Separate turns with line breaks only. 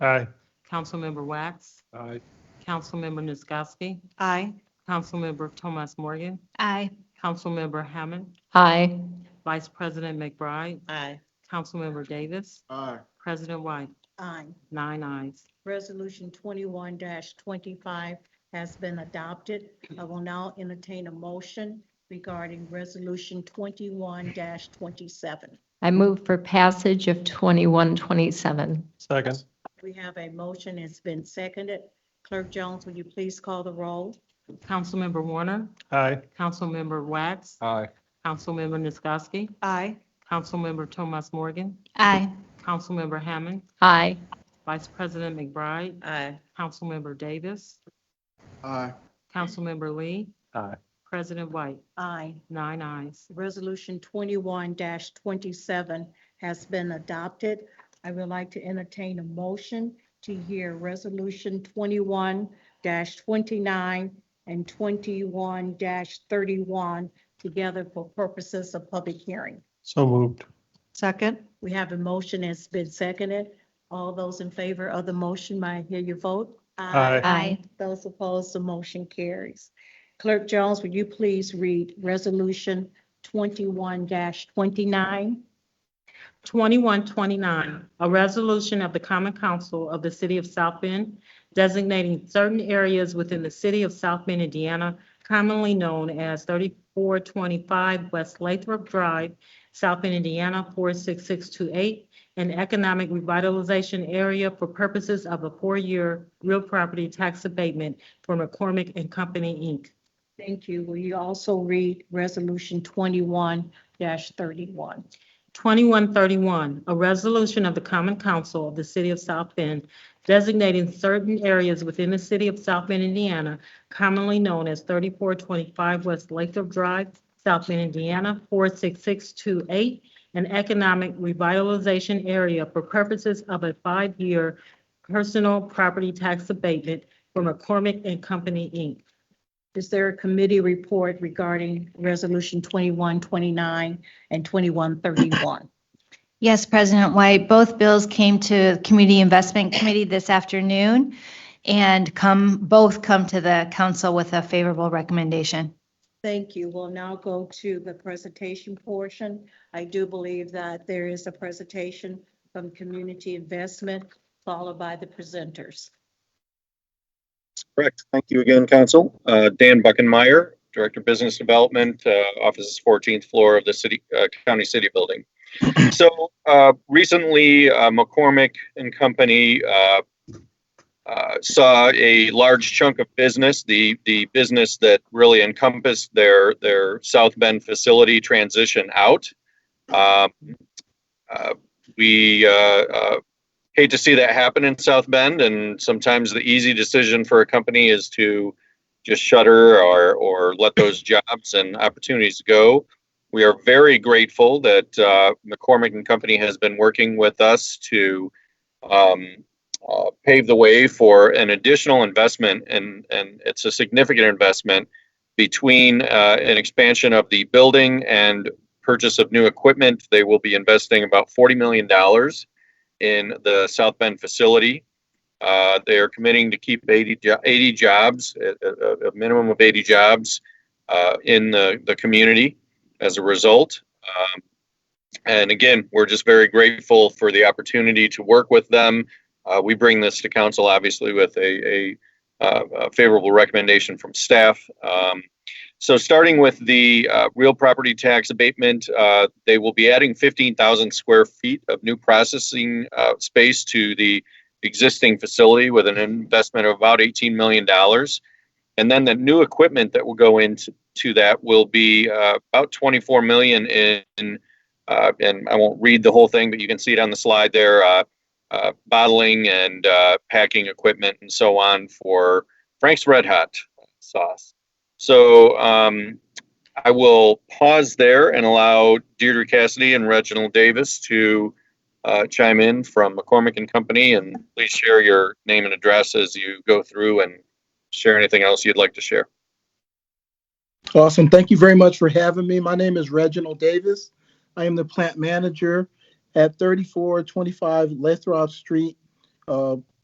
Aye.
Councilmember Wax,
Aye.
Councilmember Nisgowsky,
Aye.
Councilmember Thomas Morgan,
Aye.
Councilmember Hammond,
Aye.
Vice President McBride,
Aye.
Councilmember Davis,
Aye.
President White,
Aye.
nine ayes.
Resolution twenty-one twenty-five has been adopted. I will now entertain a motion regarding resolution twenty-one twenty-seven.
I move for passage of 2127.
Second.
We have a motion. It's been seconded. Clerk Jones, will you please call the roll?
Councilmember Warner,
Aye.
Councilmember Wax,
Aye.
Councilmember Nisgowsky,
Aye.
Councilmember Thomas Morgan,
Aye.
Councilmember Hammond,
Aye.
Vice President McBride,
Aye.
Councilmember Davis,
Aye.
Councilmember Lee,
Aye.
President White,
Aye.
nine ayes.
Resolution twenty-one twenty-seven has been adopted. I would like to entertain a motion to hear Resolution twenty-one twenty-nine and twenty-one thirty-one together for purposes of public hearing.
So moved.
Second,
We have a motion that's been seconded. All those in favor of the motion, may I hear your vote?
Aye.
Aye.
Those opposed, the motion carries. Clerk Jones, would you please read Resolution twenty-one twenty-nine?
2129, a resolution of the Common Council of the City of South Bend designating certain areas within the City of South Bend, Indiana, commonly known as 3425 West Lathrop Drive, South Bend, Indiana 46628, an economic revitalization area for purposes of a four-year real property tax abatement for McCormick and Company, Inc.
Thank you. Will you also read Resolution twenty-one thirty-one?
2131, a resolution of the Common Council of the City of South Bend designating certain areas within the City of South Bend, Indiana, commonly known as 3425 West Lathrop Drive, South Bend, Indiana, 46628, an economic revitalization area for purposes of a five-year personal property tax abatement for McCormick and Company, Inc.
Is there a committee report regarding Resolution twenty-one twenty-nine and twenty-one thirty-one?
Yes, President White, both bills came to Community Investment Committee this afternoon and come, both come to the council with a favorable recommendation.
Thank you. We'll now go to the presentation portion. I do believe that there is a presentation from Community Investment followed by the presenters.
Correct. Thank you again, Council. Uh, Dan Buckenmeyer, Director of Business Development, uh, offices 14th floor of the city, uh, County City Building. So uh, recently, uh, McCormick and Company uh, uh, saw a large chunk of business, the, the business that really encompassed their, their South Bend facility transition out. Um, uh, We uh, uh, hate to see that happen in South Bend. And sometimes the easy decision for a company is to just shutter or, or let those jobs and opportunities go. We are very grateful that uh, McCormick and Company has been working with us to um, uh, pave the way for an additional investment, and, and it's a significant investment between uh, an expansion of the building and purchase of new equipment. They will be investing about $40 million in the South Bend facility. Uh, They are committing to keep 80, jo- 80 jobs, a- a, a minimum of 80 jobs uh, in the, the community as a result. Um, And again, we're just very grateful for the opportunity to work with them. Uh, We bring this to council, obviously, with a, a uh, a favorable recommendation from staff. Um, So starting with the uh, real property tax abatement, uh, they will be adding 15,000 square feet of new processing uh, space to the existing facility with an investment of about $18 million. And then the new equipment that will go into to that will be uh, about 24 million in, uh, and I won't read the whole thing, but you can see it on the slide there, uh, uh, bottling and uh, packing equipment and so on for Frank's Red Hot sauce. So um, I will pause there and allow Deirdre Cassidy and Reginald Davis to uh, chime in from McCormick and Company. And please share your name and address as you go through and share anything else you'd like to share.
Awesome. Thank you very much for having me. My name is Reginald Davis. I am the plant manager at 3425 Lathrop Street, uh,